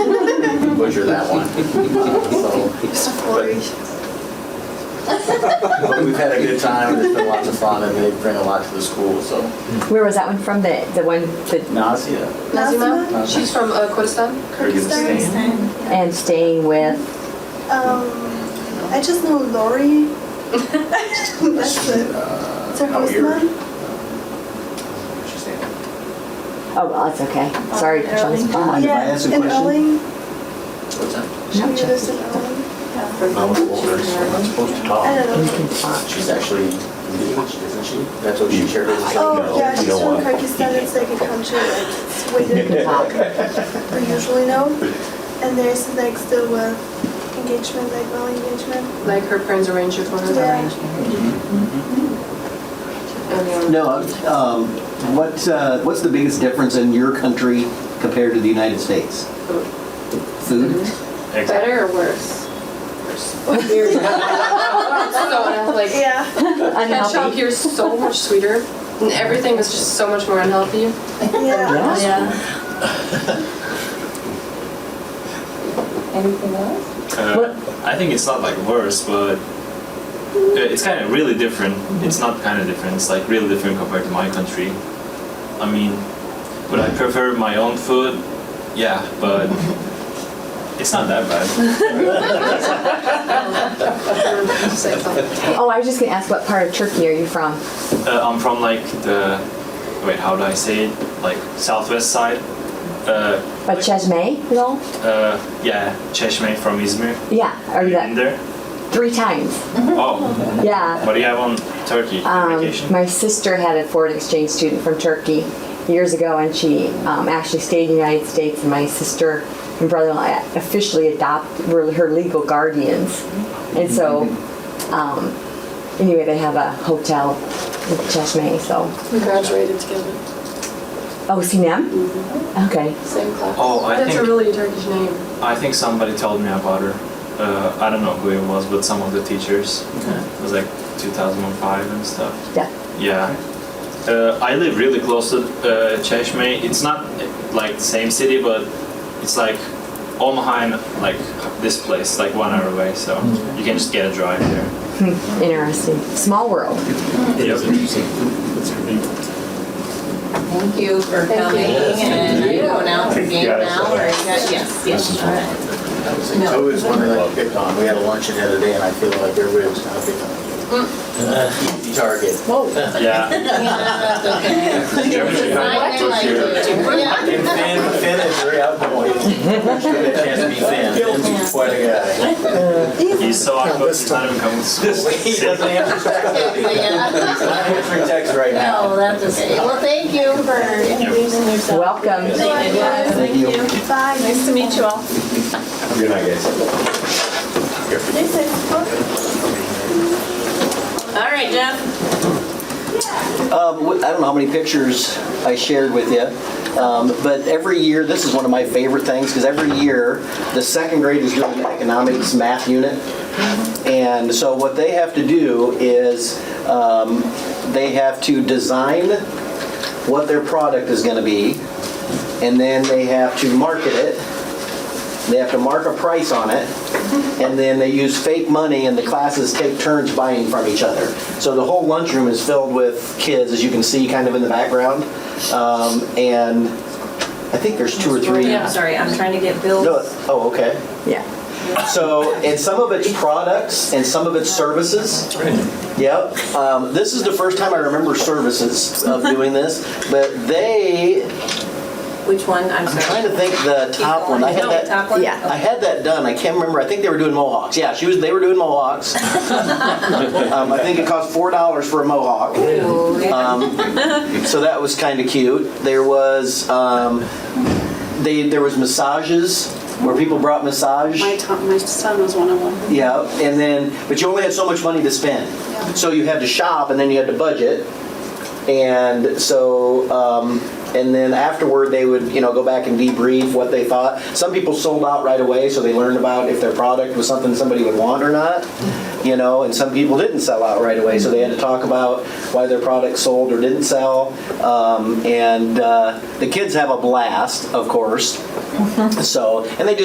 measure that one. So, but we've had a good time, and it's been lots of fun, and they bring a lot to the school, so. Where was that one from? The the one that Nausea. Nazima, Nazima? she's from uh, Kurdistan. Kyrgyzstan. and staying with. Um, I just know Lori. That's it. Uh, It's her how host weird. mom? She's saying- Oh, well, that's okay. Sorry, to jump the Mind spot. if I Yeah, ask a in question? Elling. What's that? She Gotcha. lives in Elling. I was older, so I'm not supposed to I talk. don't know. She's actually engaged, isn't she? That's what she shared with us. Oh, yeah, you she's don't from want- Kyrgyzstan. It's like a country like it's way You can different talk. than we usually know. And there's like still a engagement, like well engagement. Like her parents arranged it for her. Yeah. Mm-hmm. And, uh, No, um, what, uh, what's the biggest difference in your country compared to the United States? Food? Better or worse? Worse. so, like, Yeah, ketchup Unhealthy. here is so much sweeter, and everything is just so much more unhealthy. yeah. Yeah. Anything else? What- Uh, I think it's not like worse, but uh, it's kind of really different. It's not kind of different. It's like really different compared to my country. I mean, would I prefer my own food? Yeah, but it's not that bad. Say something. Oh, I was just gonna ask what part of Turkey are you from? Uh, I'm from like the wait, how do I say it? Like southwest side. Uh, But Chesme at all? uh, yeah, Cheshme from Izmir. Yeah. Are you Been that there? three times? Oh, Yeah. what do you have on Turkey Um, vacation? my sister had a foreign exchange student from Turkey years ago, and she um, actually stayed in the United States. And my sister and brother-in-law officially adopted were her legal guardians, and so um, anyway, they have a hotel in Cheshme. So, We graduated together, oh, Sinem. Okay. same class. Oh, I That's a think- really Turkish name. I think somebody told me about her. Uh, I don't know who it was, but some of the teachers. It was like 2005 and stuff. Yeah. Yeah. Uh, I live really close to uh, Cheshme. It's not uh, like the same city, but it's like Omaha and like this place, like one hour away. So you can just get a drive there. Interesting. Small world. It is Yeah. interesting. Thank you for Thank you. coming and are you going out for game now or you got, yes, This yes, is all one right. of my favorite. I would say two is one that I picked on. We had a luncheon the other day, and I feel like everybody was kind of picking on me. Mm. Easy target. Yeah. Yeah, that's okay. Germany, I Germany. like it. Yeah. And Finn, Finn is very outgoing. Should have a chance to be Finn. Finn's quite a guy. He's so awkward. this He's not even coming to He doesn't school. answer text. Yeah. He's not answering texts right now. No, that's okay. Well, thank you for introducing yourself. Welcome. Thank you. Thank you. Bye. Nice to meet you all. Good night, guys. This is All right, Jeff. Um, wh- I don't know how many pictures I shared with you, um, but every year, this is one of my favorite things, because every year, the second grade is doing an economics math unit. And so what they have to do is, um, they have to design what their product is gonna be, and then they have to market it. They have to mark a price on it, and then they use fake money, and the classes take turns buying from each other. So the whole lunchroom is filled with kids, as you can see kind of in the background. Um, and I think there's two or three. I'm sorry, I'm trying to get Bill's. No, oh, okay. Yeah. So, and some of it's products and some of it's services. Yep. Um, this is the first time I remember services of doing this, but they, Which one? I'm I'm sorry. trying to think the Keep top one. I going. had No, that. Top one? yeah. I had that done. I can't remember. I think they were doing mohawks. Yeah, she was. They were doing mohawks. um, I think it cost four dollars for a mohawk. Oh, yeah. So that was kind of cute. There was um, they there was massages where people brought massage. My, to- my son was one of them. Yeah, and then, but you only had so much money to spend. So you had to shop and then you had to budget. And so, um, and then afterward, they would, you know, go back and debrief what they thought. Some people sold out right away, so they learned about if their product was something somebody would want or not, you know, and some people didn't sell out right away, so they had to talk about why their product sold or didn't sell. Um, and uh, the kids have a blast, of course. So, and they just